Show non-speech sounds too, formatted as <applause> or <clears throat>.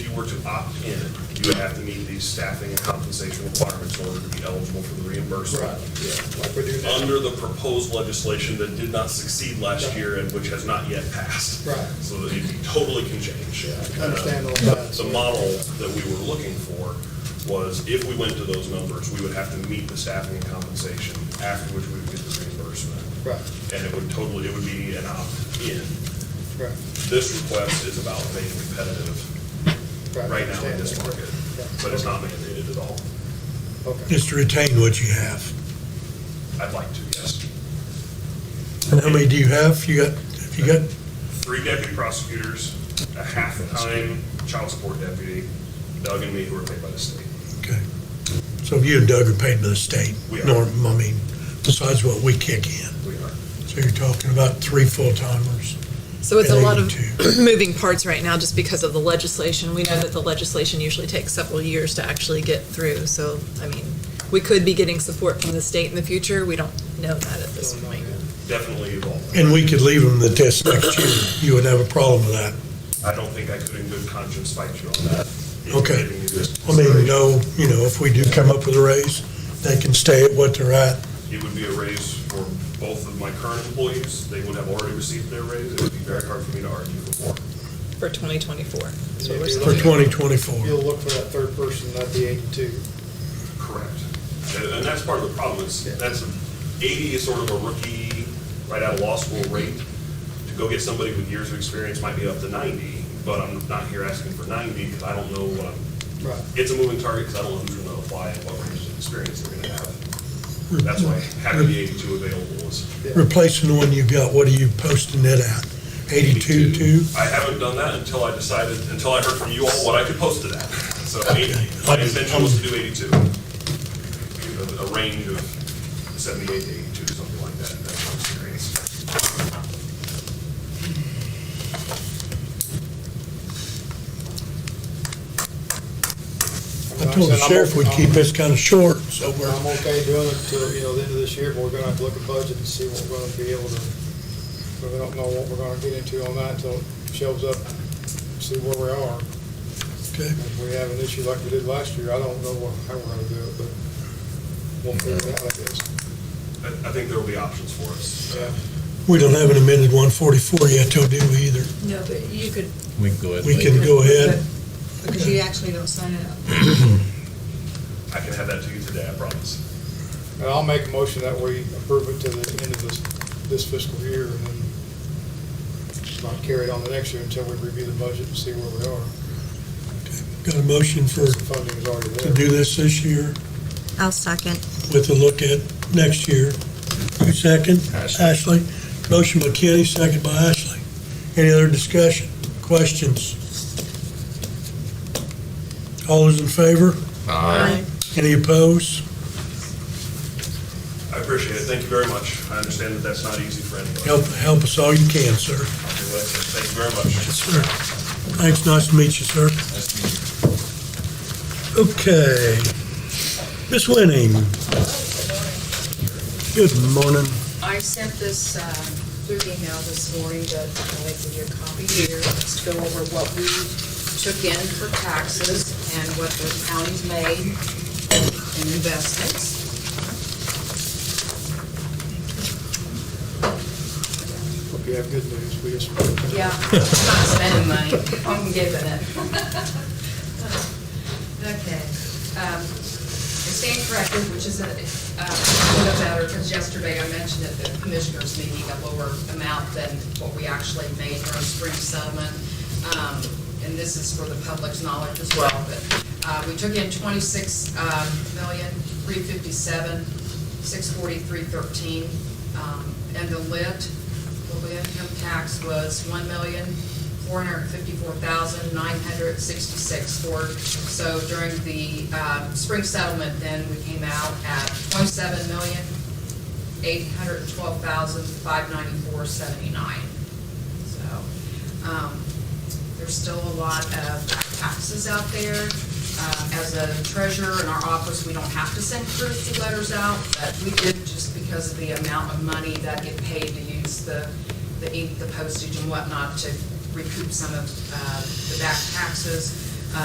you were to opt in, you would have to meet these staffing and compensation requirements in order to be eligible for the reimbursement. yeah, like we do now. Under the proposed legislation that did not succeed last year and which has not yet passed. Right. So that it totally can change. Yeah, I understand all Uh, that. The model that we were looking for was if we went to those numbers, we would have to meet the staffing and compensation, after which we would get the reimbursement. Right, And it would totally, it would be an opt-in. right, This request is about being competitive right. right now in this Understand. market, Yeah. but it's not mandated at all. Okay, Just to retain what you have. I'd like to, yes. And how many do you have? You got, have you got, Three deputy prosecutors, a half-time child support deputy, Doug and me, who are paid by the state. okay. So you and Doug are paid by the state? We are. Norm, I mean, besides what we kick in. We are. So you're talking about three full-timers? So it's a lot of Related <clears throat> moving parts right now just because of the legislation. We know that the legislation usually takes several years to actually get through. So, I mean, we could be getting support from the state in the future. We don't know that at this Don't know point. Definitely evolving. And we could leave them the test next year. You would have a problem with that. I don't think I could in good conscience fight you on that. If Okay. you're giving me this I mean, consideration, no, you know, if we do come up with a raise, they can stay at what they're at. It would be a raise for both of my current employees. They would have already received their raise. It would be very hard for me to argue for more. For 2024. is what we're Yeah, For saying. 2024. you'll look for that third person, that'd be eighty-two. Correct. And, and that's part of the problem, is that's, eighty is sort of a rookie, right out of law school rate. To go get somebody with years of experience might be up to ninety, but I'm not here asking for ninety, because I don't know what I'm, Right, it's a moving target, because I don't know who's gonna apply and what range of experience they're gonna have. That's why having the eighty-two available is. Replacing the one you got, what are you posting it at? 82, 2? I haven't done that until I decided, until I heard from you all what I could post to that. So eighty, my intention was to do eighty-two. A- A range of seventy-eight to eighty-two, something like that, that's my experience. I told the sheriff we'd keep this kind of short, so we're, I'm okay doing it till, you know, the end of this year, but we're gonna have to look at budget and see what we're gonna be able to, but we don't know what we're gonna get into on that until it shows up, see where we are. okay. If we have an issue like we did last year, I don't know what- how we're gonna do it, but we'll figure it out, I guess. I, I think there will be options for us. Yeah. We don't have an amended 144 yet, though, do we either? No, but you could. We can go ahead. We can go ahead. Because you actually don't sign it up. I can have that to you today, I promise. And I'll make a motion that we approve it to the end of this, this fiscal year and then not carry it on the next year until we review the budget and see where we are. Got a motion for, The funding is already to there. do this this year I'll second. with a look at next year. Who second? Ashley. Motion by Kenny, second by Ashley. Any other discussion, questions? All those in favor? Aye. Any opposed? I appreciate it, thank you very much. I understand that that's not easy for anybody. Help, help us all you can, sir. I'll do it. Thank you very much. Yes, sir. Thanks, nice to meet you, sir. Okay. Miss Winning. Good morning. I sent this um, through email this morning, but I'll make you a copy here, let's go over what we took in for taxes and what the county's made in investments. Hope you have good news. We just. Yeah, I'm not spending money, I'm giving it. Okay. um, I stand corrected, which is a uh, a little better, because yesterday I mentioned at the commissioners meeting a lower amount than what we actually made for our spring settlement. Um, And this is for the public's knowledge as well, but uh, we took in twenty-six um, million, three fifty-seven, six forty-three, thirteen. Um, And the lit, the lit income tax was one million, four hundred fifty-four thousand, nine hundred sixty-six for, so during the uh, spring settlement, then we came out at twenty-seven million, eight hundred twelve thousand, five ninety-four, seventy-nine. So, um, there's still a lot of taxes out there. Uh, As a treasurer in our office, we don't have to send courtesy letters out, but we did just because of the amount of money that get paid to use the, the ink, the postage and whatnot to recoup some of uh, the back taxes.